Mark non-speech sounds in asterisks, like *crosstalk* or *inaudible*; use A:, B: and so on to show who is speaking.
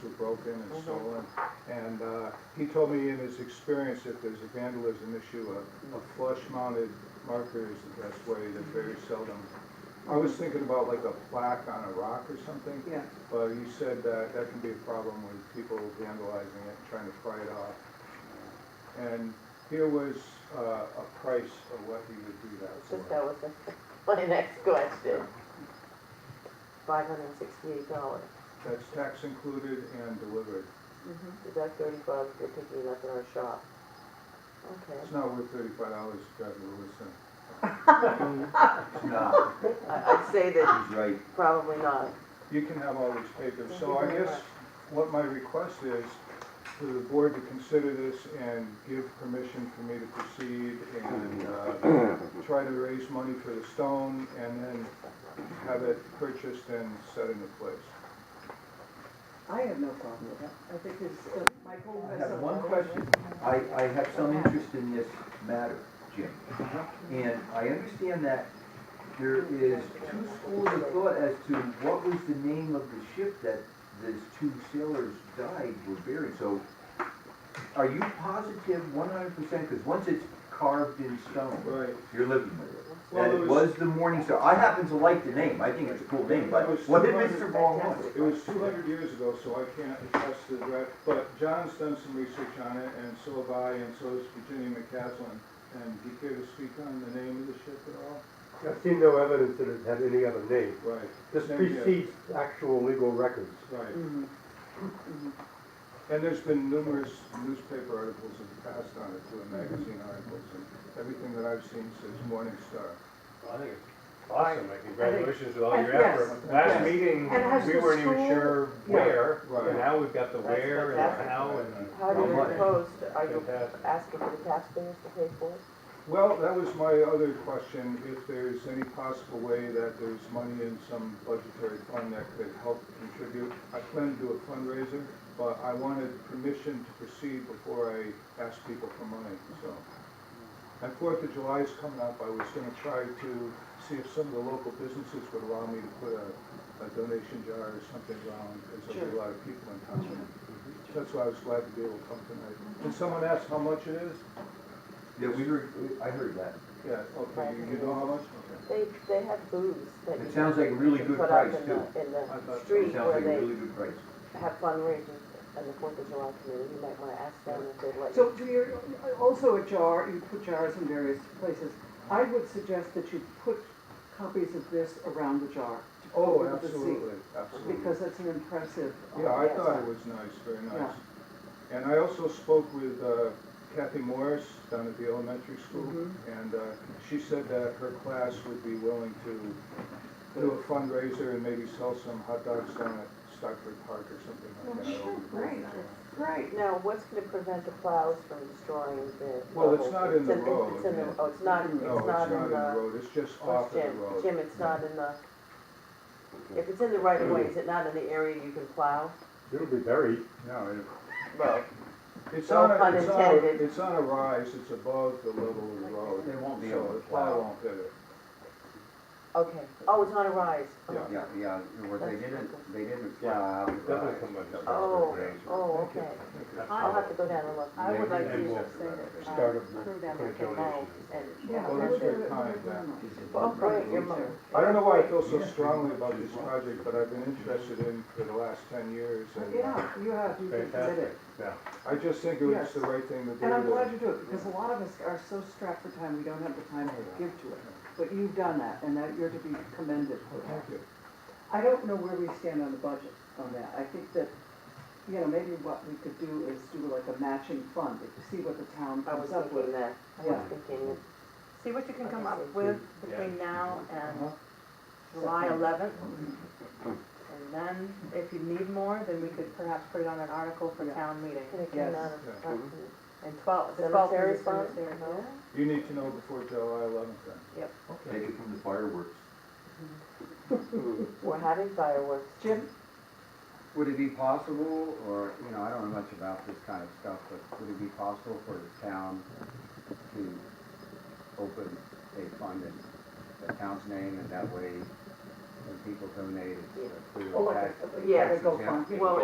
A: broken and stolen. And uh, he told me in his experience, if there's a vandalism issue, a- a flush-mounted marker is the best way, they're very seldom. I was thinking about like a plaque on a rock or something,
B: Yeah,
A: but you said that that can be a problem with people vandalizing it, trying to pry it off. And here was uh, a price of what he would do that for.
C: Just that was *laughs* my next question. Five hundred and sixty-eight dollars.
A: That's tax included and delivered.
C: Is that thirty bucks? You're picking it up in our shop. Okay.
A: It's not worth thirty-five dollars to drive to Lewiston.
D: No,
C: I, I'd say that
D: he's right.
C: probably not.
A: You can have all these papers,
C: Thank you
A: so I
C: very
A: guess what my request is for the board to consider this and give permission for me to proceed and, uh, try to raise money for the stone and then have it purchased and set into place.
B: I have no problem with that. I think it's, uh, Michael
D: I
B: has.
D: have
B: a-
D: one question. I, I have some interest in this matter, Jim. And I understand that there is two schools of thought as to what was the name of the ship that these two sailors died, were buried. So are you positive one hundred percent? Because once it's carved in stone,
A: Right.
D: you're living with it.
A: Well,
D: That
A: there
D: it was the Morning Star. I happen to like the name. I think it's a cool name, but
A: It was
D: what if
A: 200
D: it's the wrong one?
A: It was two hundred years ago, so I can't attest to that, but John's done some research on it, and so have I, and so has Virginia McCaslin. And do you care to speak on the name of the ship at all?
E: I've seen no evidence that it had any other name.
A: Right.
E: This
A: Thank you.
E: precedes actual legal records.
A: Right.
B: Mhm.
A: And there's been numerous newspaper articles in the past on it, too, and magazine articles, and everything that I've seen says Morning Star.
F: I think it's awesome, and congratulations with all
B: And
F: your
B: yes,
F: effort. Last
A: yes.
F: meeting,
B: And has
F: we
B: the
F: weren't even
B: school-
F: sure
B: Yeah.
F: where,
A: Right.
F: and now we've got the
C: That's
F: where and the
C: fantastic.
F: how and.
C: How do
D: How
C: you
D: much?
C: propose, to- are you
F: Fantastic.
C: asking for the taxpayers to pay for it?
A: Well, that was my other question, if there's any possible way that there's money in some budgetary fund that could help contribute. I plan to do a fundraiser, but I wanted permission to proceed before I ask people for money, so. And Fourth of July is coming up, I was gonna try to see if some of the local businesses would allow me to put a, a donation jar or something around, because there'll be a lot of people in town. That's why I was glad to be able to come tonight. Did someone ask how much it is?
D: Yeah, we heard, I heard that.
A: Yeah, okay, you you know how much? Okay.
C: They, they have booths that you.
D: It sounds like a really
C: can
D: good
C: put up
D: price,
C: in the-
D: too.
C: In
A: I
C: the
A: thought-
D: It
C: street
D: sounds
C: where
D: like a
C: they
D: really good price.
C: have fundraisers and the Fourth of July committee. You might wanna ask them if they'd let you.
B: So do you, also a jar, you put jars in various places. I would suggest that you put copies of this around the jar. to put
A: Oh,
B: under the seat,
A: absolutely, absolutely.
B: Because that's an impressive. uh,
A: Yeah, I thought it was nice, very nice. And I also spoke with uh, Kathy Morris down at the elementary school,
C: Mm-hmm.
A: and uh, she said that her class would be willing to do a fundraiser and maybe sell some hot dogs down at Stockford Park or something like that. over the
B: Great,
A: weekend.
B: great.
C: Now, what's gonna prevent the plows from destroying the?
A: Well, it's
C: rubble?
A: not in the
C: It's
A: road,
C: It's in the,
A: yeah.
C: oh, it's not, it's
A: No, it's
C: not in the,
A: road, it's just
C: where's
A: off of the
C: Jim?
A: road.
C: Jim, it's not in the, if it's in the right of way, is it not in the area you can plow?
E: It'll be buried.
A: No, it-
C: Well.
A: It's
C: No
A: on, a-
C: pun
A: it's on, a-
C: intended.
A: it's on a rise, it's above the level of the road.
D: They won't be
A: so
D: able to
A: the plow
D: plow.
A: won't hit it.
C: Okay, oh, it's on a rise. Oh.
A: Yeah.
D: Yeah, yeah, well, they didn't, they didn't
F: Yeah,
D: plow.
F: That
G: uh,
F: was somebody's.
C: Oh,
F: arrangement.
C: oh, okay. I'll have to go down and look.
H: I would like to
F: And
H: just
F: we'll-
H: say that, uh,
E: Start a-
H: throw down
F: put a
H: the canal
F: donation.
H: and.
A: Well,
B: Yeah. I
A: that's
B: would
A: very
B: do it
A: kind,
B: very
A: yeah.
B: much.
C: Oh, great, your mom.
A: I don't know why I feel so strongly about this project, but I've been interested in for the last ten years, and
B: Oh, Yeah, you have, you did
F: Fantastic,
B: it.
F: yeah.
A: I just think it was the right thing to do.
B: And I'm
A: to-
B: glad you do it, because a lot of us are so strapped for time, we don't have the time to give to it. But you've done that, and that you're to be commended for
A: Well,
B: that.
A: Thank you.
B: I don't know where we stand on the budget on that. I think that, you know, maybe what we could do is do like a matching fund, if you see what the town
C: I was
B: comes up
C: thinking
B: with.
C: that, I was thinking,
H: See what you can come up with between now and July eleventh. And then, if you need more, then we could perhaps put it on an article for
B: Yeah.
H: town meeting.
C: can it
B: Yes.
C: come out of,
A: Yeah.
C: uh,
H: And twelve, the twelfth
C: cemetery
H: is
C: fund?
H: cemetery.
C: No?
A: You need to know before July eleventh then.
D: Take it from the fireworks.
C: We're having fireworks.
B: Jim,
G: Would it be possible, or, you know, I don't know much about this kind of stuff, but would it be possible for the town to open a fund in the town's name, and that way, when people donate, it's a free
C: Oh,
G: tax?
C: yeah,
B: gotta go fund.
C: Well,